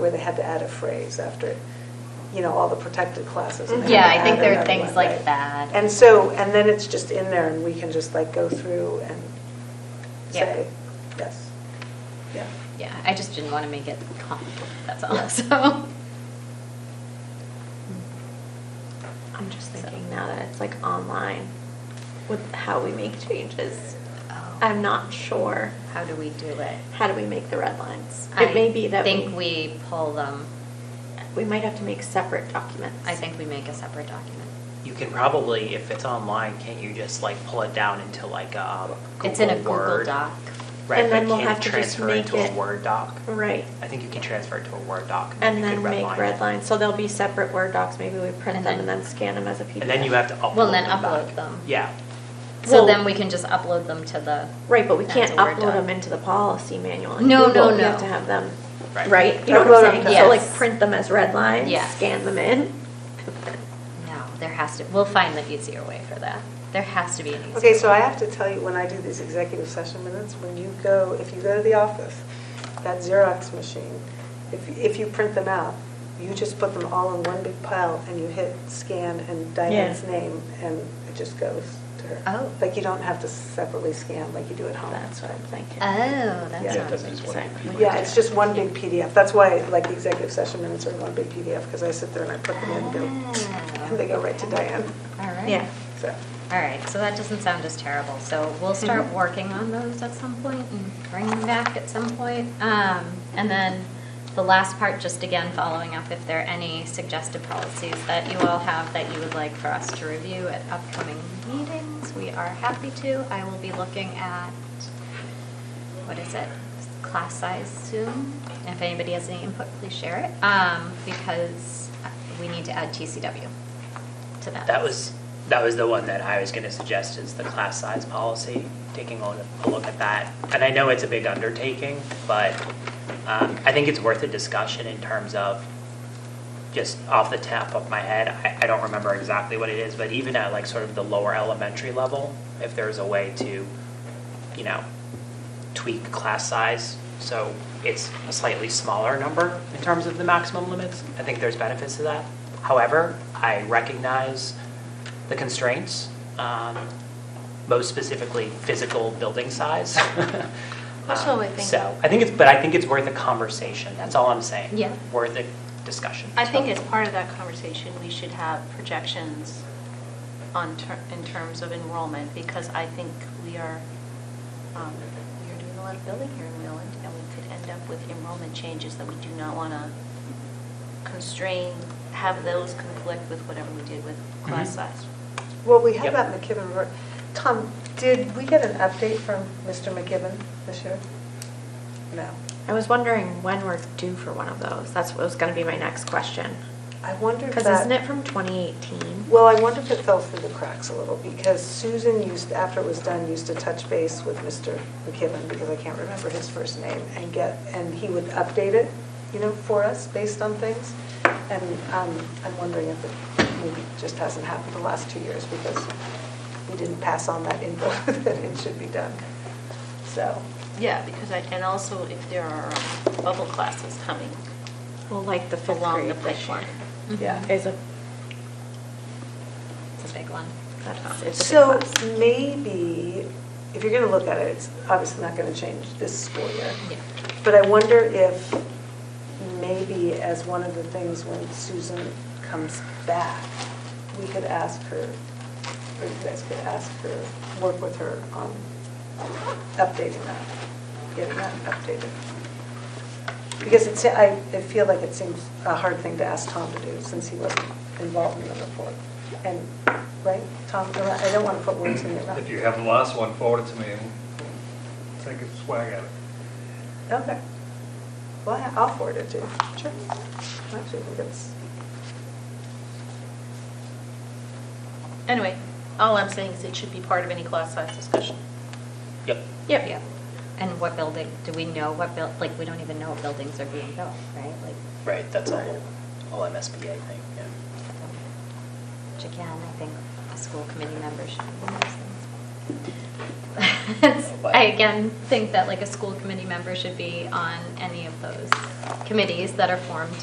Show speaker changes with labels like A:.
A: where they had to add a phrase after, you know, all the protected classes. and they
B: Yeah,
A: had to
B: I think
A: add
B: there are
A: another
B: things
A: one,
B: like
A: right?
B: that.
A: And so, and then it's just in there and we can just like go through and
B: Yeah.
A: say, yes, yeah.
B: Yeah, I just didn't want to make it complicated, that's all, so.
C: I'm just
B: So-
C: thinking now that it's like online with how we make changes. I'm not sure.
B: How do we do it?
C: How do we make the red lines? It may be that
B: I think we pull them,
C: we might have to make separate documents.
B: I think we make a separate document.
D: You can probably, if it's online, can't you just like pull it down into like a um, Google
B: It's in a Google
D: Word?
B: Doc.
D: Right,
C: And then
D: but
C: we'll
D: can
C: have
D: you
C: to just
D: transfer
C: make
D: into
C: it-
D: a Word doc?
C: Right.
D: I think you can transfer it to a Word doc
C: And
D: you
C: then
D: can
C: make
D: redline
C: red
D: it.
C: lines. So there'll be separate Word docs. Maybe we print
B: And
C: them
B: then-
C: and then scan them as a PDF.
D: And then you have to upload
B: Well, then
D: them back.
B: upload them.
D: Yeah,
B: So
C: Well-
B: then we can just upload them to the.
C: Right, but we
B: as
C: can't
B: a Word
C: upload
B: doc.
C: them into the policy manual. in
B: No,
C: Google.
B: no,
C: You have
B: no.
C: to have them,
D: Right.
C: right? You
A: Yeah.
C: know what
A: Upload
C: I'm
A: them
C: saying?
B: to-
C: So like
B: Yes.
C: print them as red lines,
B: Yes.
C: scan them in.
B: No, there has to, we'll find the easier way for that. There has to be an easier.
A: Okay, so I have to tell you, when I do these executive session minutes, when you go, if you go to the office, that Xerox machine, if, if you print them out, you just put them all in one big pile and you hit scan and Diane's
C: Yeah.
A: name and it just goes to her.
B: Oh.
A: Like you don't have to separately scan like you do at home.
C: That's what I'm thinking.
B: Oh, that
A: Yeah.
B: sounds
E: That's just one
B: interesting.
E: big
A: Yeah, it's just one big PDF. That's why like the executive session minutes are in one big PDF because I sit there and I put them in and go,
B: Ah,
C: Mm.
A: and they go right to Diane,
B: All right.
C: Yeah.
A: so.
B: All right, so that doesn't sound as terrible, so we'll start
A: Mhm.
B: working on those at some point and bring them back at some point. Um, And then the last part, just again, following up, if there are any suggested policies that you all have that you would like for us to review at upcoming meetings, we are happy to. I will be looking at, what is it, class size soon? If anybody has any input, please share it, um, because we need to add TCW to that.
D: that
B: list.
D: was, that was the one that I was gonna suggest is the class size policy, taking a a look at that. And I know it's a big undertaking, but um, I think it's worth a discussion in terms of, just off the top of my head, I, I don't remember exactly what it is, but even at like sort of the lower elementary level, if there's a way to, you know, tweak class size, so it's a slightly smaller number in terms of the maximum limits. I think there's benefits to that. However, I recognize the constraints, um, most specifically physical building size.
C: That's what
D: Um,
C: I think.
D: So, I think it's, but I think it's worth a conversation, that's all I'm saying.
B: Yeah.
D: Worth a discussion.
F: I think as part of that conversation, we should have projections on, ter- in terms of enrollment, because I think we are, um, we are doing a lot of building here in Wayland, and we could end up with enrollment changes that we do not want to constrain, have those conflict with whatever we did with class
D: Mhm.
F: size.
A: Well, we have
D: Yep.
A: that McKibben work. Tom, did we get an update from Mr. McKibben this year? No.
C: I was wondering when we're due for one of those. That's what was going to be my next question.
A: I wonder if
C: Because
A: that.
C: isn't it from 2018?
A: Well, I wonder if it fell through the cracks a little, because Susan used, after it was done, used to touch base with Mr. McKibben, because I can't remember his first name, and get, and he would update it, you know, for us, based on things. And um, I'm wondering if it maybe just hasn't happened the last two years, because we didn't pass on that info that it should be done. So,
F: Yeah, because I, and also if there are um, bubble classes coming
C: Well, like the fifth
F: along the
C: grade this year.
F: pipeline.
A: yeah.
C: Mm-hmm. Is a,
B: It's a big one.
F: um,
C: that's, it's a
A: So
C: big class.
A: maybe, if you're going to look at it, it's obviously not going to change this school year.
B: Yeah.
A: But I wonder if maybe as one of the things when Susan comes back, we could ask her, or you guys could ask her, work with her on updating that, getting that updated. Because it's, I, I feel like it seems a hard thing to ask Tom to do since he wasn't involved in the report. And, right, Tom, I don't want to put words in your mouth.
E: If you have the last one, forward it to me and we'll take a swag at it.
A: Okay. Well, I- I'll forward it to you. Sure. Actually, I think it's,
F: Anyway, all I'm saying is it should be part of any class size discussion.
D: Yep.
B: Yep. Yep. And what building, do we know what buil, like, we don't even know what buildings are being built, right? Like,
D: Right, that's a whole, whole MSBA thing, yeah.
B: which again, I think a school committee member should be one of those things. It's- I again think that like a school committee member should be on any of those committees that are formed